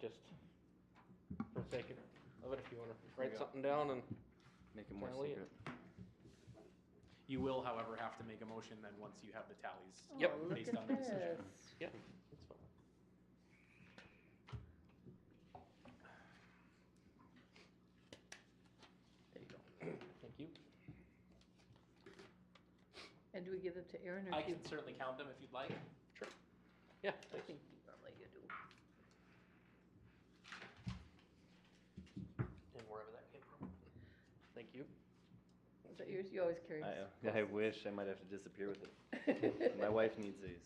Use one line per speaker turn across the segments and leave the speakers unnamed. just for the sake of it, if you wanna write something down and
Make it more
Tally it.
secret.
You will, however, have to make a motion then once you have the tallies.
Yep.
Oh, look
Based on
at
the decision.
this.
Yep, it's fine. There you go. Thank you.
And do we give them to Aaron or
I
do you?
can certainly count them if you'd like.
Yeah,
I
thanks.
think I'll let you do.
And wherever that came from. Thank you.
Is that yours? You always carry.
I, uh,
this.
I wish I might have to disappear with it. My wife needs these,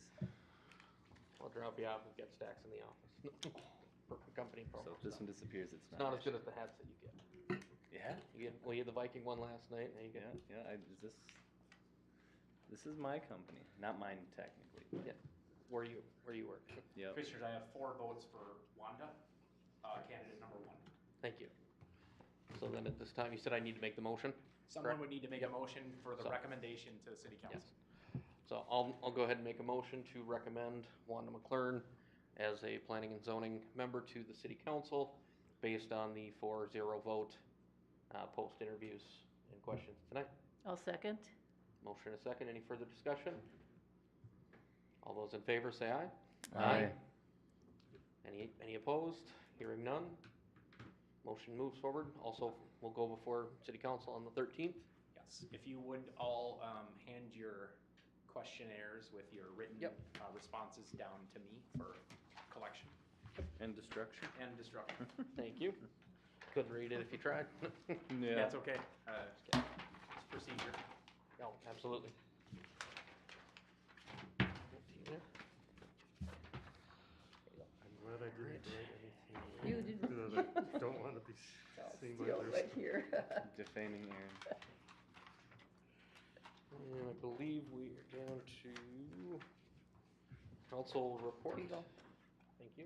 I'll drop you off. We've got stacks in the office. Perfect company
so
program.
if this one disappears, it's
It's not
not.
as good as the hats that you get.
Yeah,
You get, well, you had the Viking one last night, now you
yeah,
get,
yeah, I, is this, this is my company, not mine technically. but-
Yeah. where you, where you work.
Yep,
Commissioners, I have four votes for Wanda, uh, candidate number one.
Thank you. So then at this time, you said I need to make the motion?
Someone
Correct.
would need to make a motion for the
So-
recommendation to the city council.
So I'll, I'll go ahead and make a motion to recommend Wanda McLaren as a planning and zoning member to the city council based on the four zero vote, uh, post interviews and questions tonight.
I'll second.
Motion and a second, any further discussion? All those in favor say aye.
Aye.
Any, any opposed? Hearing none. Motion moves forward. Also, we'll go before city council on the thirteenth.
Yes, if you would all um, hand your questionnaires with your written
Yep.
uh, responses down to me for collection
and destruction.
and destruction.
Thank you. Couldn't read it if you tried.
Yeah,
That's okay. Uh, It's procedure.
No, absolutely.
I'm glad I didn't write anything.
You didn't-
Because I don't want to be s- seen by
Steal
others.
right here.
defaming Aaron.
And I believe we are down to council report.
There you go.
Thank you.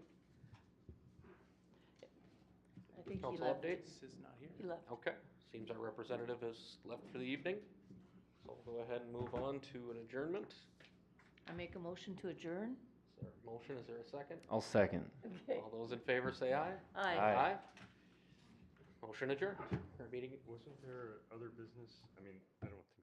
I think he
Council
left.
updates?
This is not here.
He left.
Okay, seems our representative has left for the evening. So we'll go ahead and move on to an adjournment.
I make a motion to adjourn?
Is there a motion? Is there a second?
I'll second.
Okay.
All those in favor say aye.
Aye.
Aye.
Motion adjourned. Our meeting
Wasn't there other business? I mean, I don't